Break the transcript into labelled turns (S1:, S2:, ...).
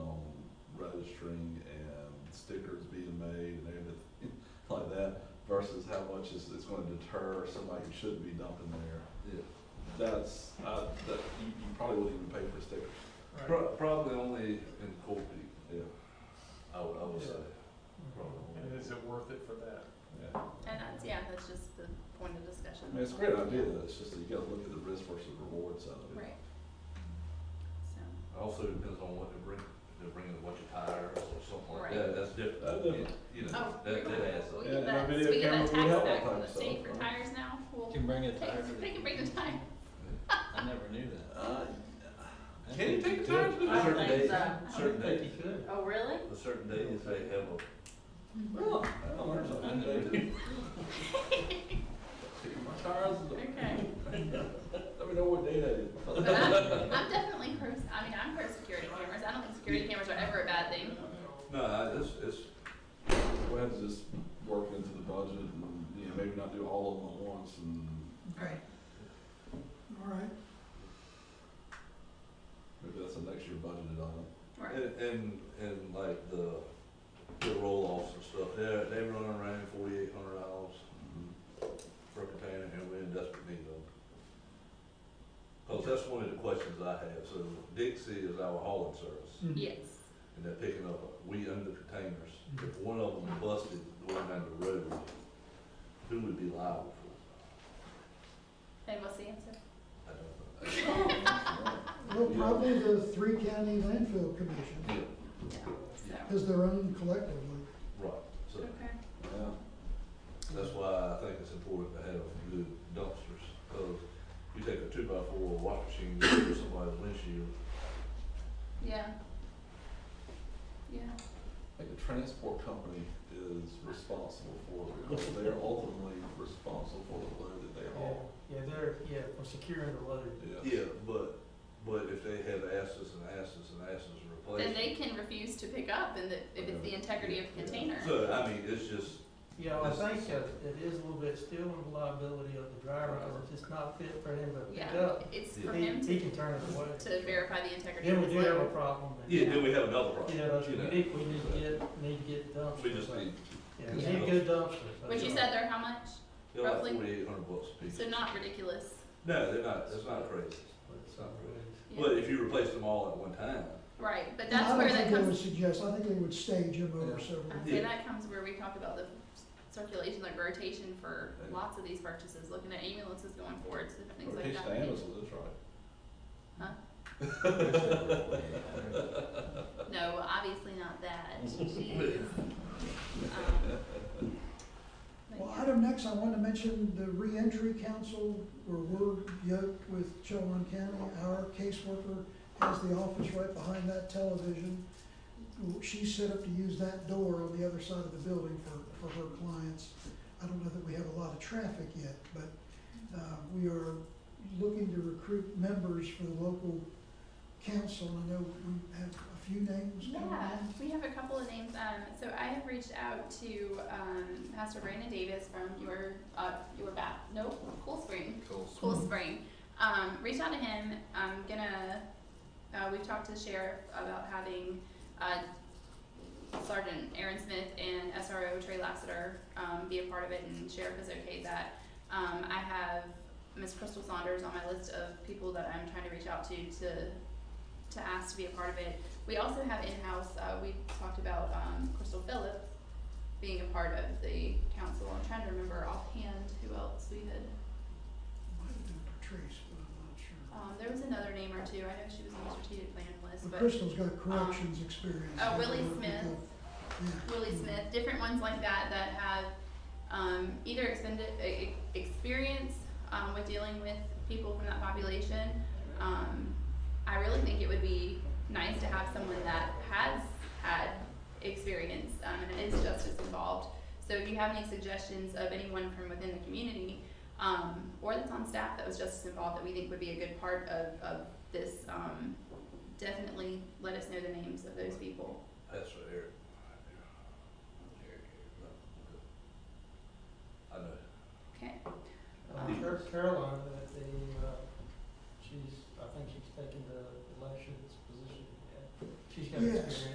S1: stickers being made and everything like that versus how much is, it's gonna deter somebody who shouldn't be dumping there.
S2: Yeah.
S1: That's, I, that, you, you probably wouldn't even pay for stickers.
S2: Pro- Probably only in Cold Peak,
S1: Yeah,
S2: I would, I would say.
S3: And is it worth it for that?
S1: yeah.
S4: And that's, yeah, that's just the point of
S1: I
S4: discussion.
S1: mean, it's a great idea, it's just that you gotta look at the risk versus reward side of it.
S4: Right. So,
S2: Also depends on what they bring, if they're bringing a bunch of tires or something like
S4: Right.
S2: that, that's different.
S1: That's different.
S2: You know,
S4: oh, we
S2: that, that adds up.
S4: we
S1: Yeah,
S4: get that,
S1: no,
S4: so
S1: video
S4: we get
S1: cameras
S4: that
S1: would help
S4: tax
S1: that
S4: back from
S1: kind of
S4: the state
S1: stuff,
S4: for
S1: right?
S4: tires now,
S5: You
S4: well,
S5: Can bring a
S4: they,
S5: tire.
S4: they can bring the tire.
S5: I never knew that.
S1: Uh,
S5: I
S2: Can you
S5: think
S2: take
S5: could.
S2: tires with
S6: I
S2: a
S6: don't
S2: certain
S6: think
S2: days?
S6: so.
S4: uh,
S2: Certain
S5: I think
S2: days,
S5: you could.
S6: Oh, really?
S2: a certain days they have a
S1: well, I don't know,
S5: I never
S1: something.
S5: knew.
S1: Picking my tires,
S4: Okay,
S1: let me know what day that is.
S4: but I'm, I'm definitely pro, I mean, I'm pro security cameras, I don't think security cameras are ever a bad thing.
S2: No, I- it's, it's,
S1: We'll have to just work into the budget and, you know, maybe not do all of them at once and
S4: Right.
S1: maybe that's a next year budgeted item.
S4: Right,
S2: and, and, and like the, the roll-offs and stuff, they're, they run around forty-eight hundred dollars per container, and we're in desperate need of them. Cause that's one of the questions I have, so Dixie is our hauling service.
S4: yes,
S2: and they're picking up, we own the containers. If one of them busted going down the road, who would be liable for
S4: and what's the answer?
S2: it? I don't
S1: Mm-hmm.
S7: Well, probably the three county landfill commission
S2: know. Yeah,
S4: Yeah, so,
S7: is their own collectively.
S2: right, so
S4: okay,
S1: Yeah,
S2: that's why I think it's important to have good dumpsters, cause you take a two by four washing machine, go through somebody's windshield,
S4: yeah. Yeah,
S1: like the transport company is responsible for it, because they're ultimately responsible for the load that they haul.
S6: Yeah, they're, yeah, for securing the load.
S1: Yeah.
S2: yeah, but, but if they have asses and asses and asses to replace.
S4: then they can refuse to pick up and that, if it's the integrity of the container.
S2: So, I mean, it's just,
S6: Yeah, I think that it is a little bit still in the liability of the driver, because if it's not fit for him to pick
S4: Yeah,
S6: up,
S4: it's
S2: Yeah.
S6: he,
S4: for him
S6: he
S4: to,
S6: can turn it away.
S4: to verify the integrity
S6: Then
S4: of
S6: we
S4: his
S6: do have a
S4: load.
S6: problem, and, you
S2: yeah, then we have another problem,
S6: know,
S2: you
S6: we
S2: know,
S6: need, we need to get, need to get dumpsters.
S2: we just need,
S6: Yeah, we need good dumpsters.
S4: Which you said they're how much?
S2: they're like
S4: Roughly.
S2: forty-eight hundred bucks a piece.
S4: So not ridiculous.
S2: No, they're not, that's not crazy.
S6: It's not really-
S4: Yeah.
S2: But if you replace them all at one time,
S4: Right, but
S7: I
S4: that's
S7: don't
S4: where
S7: think
S4: that
S7: they would
S4: comes,
S7: Suggest, I think they would stage him over
S1: Yeah.
S7: several.
S4: I'd say that comes where we talk about the circulation, like rotation for
S1: Yeah.
S4: lots of these purchases, looking at ambulances going forward, so different things
S1: Or
S4: like
S1: pitch
S4: that.
S1: to Amazon, that's right.
S4: No, obviously not that. Jeez. Um, but
S7: Well,
S4: yeah.
S7: item next, I wanted to mention the reentry council, where we're yoked with Chilton County. Our caseworker has the office right behind that television. She's set up to use that door on the other side of the building for, for her clients. I don't know that we have a lot of traffic yet, but, uh, we are looking to recruit members for the local council. I know we have a few names coming in.
S4: Yeah, we have a couple of names. Um, so I have reached out to um, Pastor Brandon Davis from your uh, your bat. Nope, Cool Spring.
S2: Cool
S4: Spring. Um, reach out to him. I'm gonna. Uh, we've talked to the sheriff about having uh, Sergeant Aaron Smith and SRO Trey Lassiter um, be a part of it, and sheriff has okayed that. Um, I have Miss Crystal Saunders on my list of people that I'm trying to reach out to to to ask to be a part of it. We also have in-house, uh, we talked about, um, Crystal Phillips being a part of the council. I'm trying to remember offhand who else we had.
S7: Might have been Patrice, but I'm not sure.
S4: Um, there was another name or two. I know she was on the strategic plan list,
S7: But
S4: but,
S7: Crystal's got corrections experience.
S4: oh, Willie
S7: She's worked with
S4: Smith,
S7: the- yeah.
S4: Willie Smith, different ones like that that have, um, either expended, e- e- experience, um, with dealing with people from that population. Um, I really think it would be nice to have someone that has had experience um, and is justice involved. So if you have any suggestions of anyone from within the community um, or that's on staff that was justice involved that we think would be a good part of, of this, um, definitely let us know the names of those
S6: uh,
S4: people.